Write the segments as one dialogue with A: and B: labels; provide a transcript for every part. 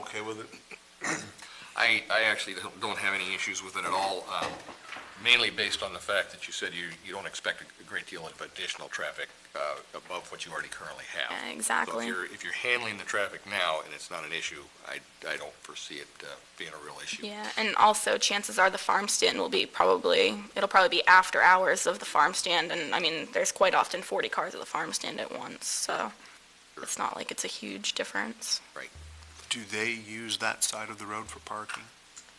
A: okay with it?
B: I, I actually don't- don't have any issues with it at all, um, mainly based on the fact that you said you, you don't expect a great deal of additional traffic uh, above what you already currently have.
C: Yeah,
B: So if
C: Exactly.
B: you're, if you're handling the traffic now and it's not an issue, I, I don't foresee it uh, being a real issue.
C: Yeah, and also chances are the farm stand will be probably, it'll probably be after hours of the farm stand. And I mean, there's quite often 40 cars at the farm stand at once, so it's not like it's a huge difference.
A: Do they use that side of the road for parking,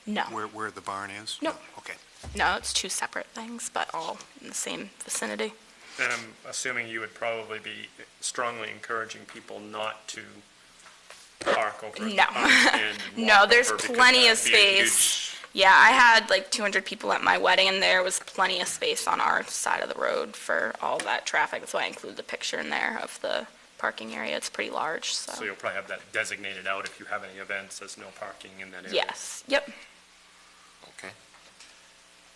C: No,
A: where, where the barn is?
C: Nope.
A: Okay.
C: no, it's two separate things, but all in the same vicinity.
D: Then I'm assuming you would probably be strongly encouraging people not to park over. at the
C: No.
D: farm stand and
C: No,
D: walk
C: there's
D: over because
C: plenty
D: that
C: of
D: would be a huge-
C: Yeah, I had like 200 people at my wedding, and there was plenty of space on our side of the road for all that traffic. That's why I included the picture in there of the parking area. It's pretty large,
D: So
C: so.
D: you'll probably have that designated out if you have any events, there's no parking in that area.
C: Yes, yep.
B: Okay.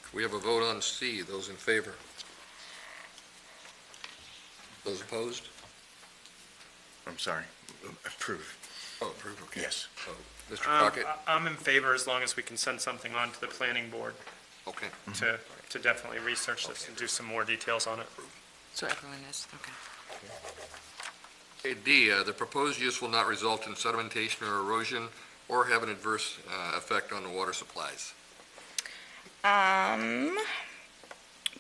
B: Can we have a vote on C, those in favor? Those opposed?
E: I'm sorry, approve.
B: Oh, approved, okay.
E: Yes.
B: Oh, Mr.
D: Um,
B: Crockett?
D: I- I'm in favor as long as we can send something on to the planning board
B: Okay.
D: to, to definitely research this and do some more details on it.
F: So everyone is, okay.
B: Okay, D, uh, the proposed use will not result in sedimentation or erosion or have an adverse uh, effect on the water supplies.
C: Um,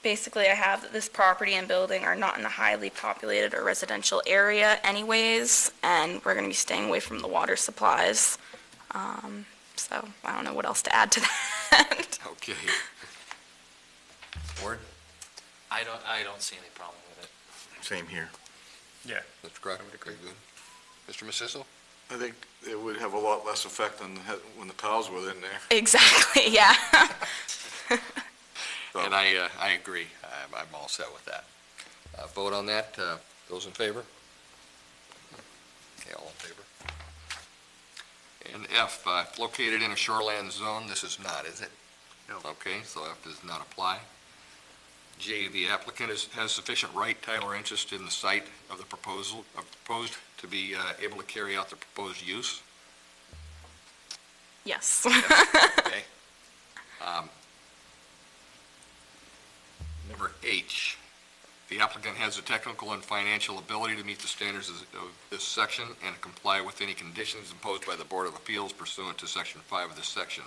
C: basically, I have that this property and building are not in a highly populated or residential area anyways, and we're gonna be staying away from the water supplies. Um, so I don't know what else to add to that.
B: Okay. Ward,
G: I don't, I don't see any problem with it.
E: Same here.
B: Mr. Crockett, very good. Mr. Masisto?
H: I think it would have a lot less effect than the- when the cows were in there.
C: Exactly, yeah.
B: And I, uh, I agree. I'm, I'm all set with that. Uh, Vote on that. uh, Those in favor? Okay, all in favor. And F, uh, located in a shoreland zone, this is not, is it? No. Okay, so F does not apply. G, the applicant is, has sufficient right, title, or interest in the site of the proposal, of proposed to be uh, able to carry out the proposed use.
C: Yes.
B: Okay. Um, Number H, the applicant has the technical and financial ability to meet the standards of of this section and comply with any conditions imposed by the Board of Appeals pursuant to section five of this section.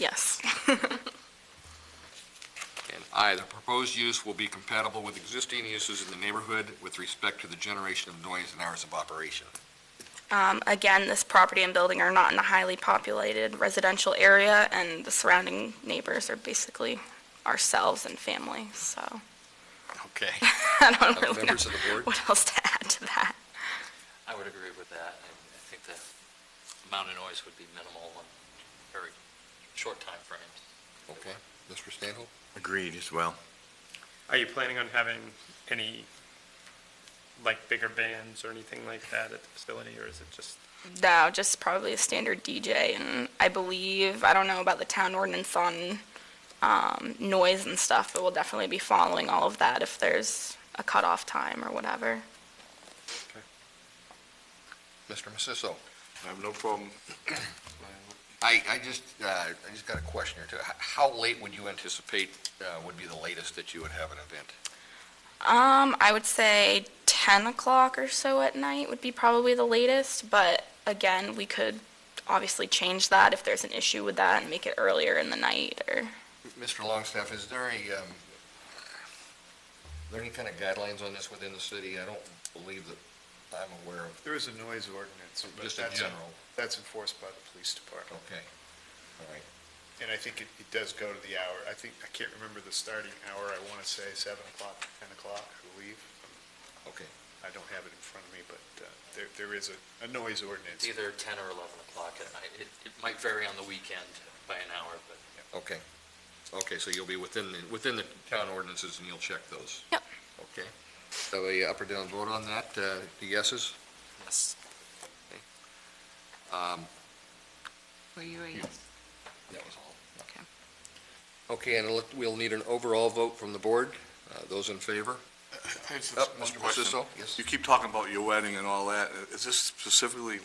C: Yes.
B: And I, the proposed use will be compatible with existing uses in the neighborhood with respect to the generation of noise and hours of operation.
C: Um, again, this property and building are not in a highly populated residential area, and the surrounding neighbors are basically ourselves and family, so
B: Okay.
C: I don't
B: Uh,
C: really know
B: Members of the board?
C: what else to add to that.
G: I would agree with that. I I think the amount of noise would be minimal in very short time timeframes.
B: Okay. Mr. Stanhope?
E: Agreed as well.
D: Are you planning on having any, like, bigger bands or anything like that at the facility, or is it just?
C: No, just probably a standard DJ, and I believe, I don't know about the town ordinance on um, noise and stuff, but we'll definitely be following all of that if there's a cutoff time or whatever.
B: Mr. Masisto?
H: I have no problem.
B: I, I just, uh, I just got a question or two. H- How late would you anticipate uh, would be the latest that you would have an event?
C: Um, I would say ten o'clock or so at night would be probably the latest, but again, we could obviously change that if there's an issue with that and make it earlier in the night or.
B: Mr. Longstaff, is there a, um, there any kind of guidelines on this within the city? I don't believe that I'm aware of,
I: There is a noise ordinance, but
B: just in
I: that's,
B: general.
I: that's enforced by the police department.
B: Okay, all right.
I: And I think it, it does go to the hour. I think, I can't remember the starting hour. I want to say seven o'clock, 10 o'clock, I believe.
B: Okay.
I: I don't have it in front of me, but uh, there, there is a, a noise
G: It's
I: ordinance.
G: either 10 or 11 o'clock at night. It, it might vary on the weekend by an hour, but
B: Okay. Okay, so you'll be within, the within the town ordinances and you'll check those?
C: Yep.
B: Okay. So a up or down vote on that, uh, the yeses?
G: yes.
B: Um,
F: Were you a yes?
B: That was all.
F: Okay.
B: Okay, and let- we'll need an overall vote from the board. Uh, Those in favor?
H: I just
B: Oh,
H: have one
B: Mr.
H: question.
B: Masisto? Yes.
H: You keep talking about your wedding and all that. Is this specifically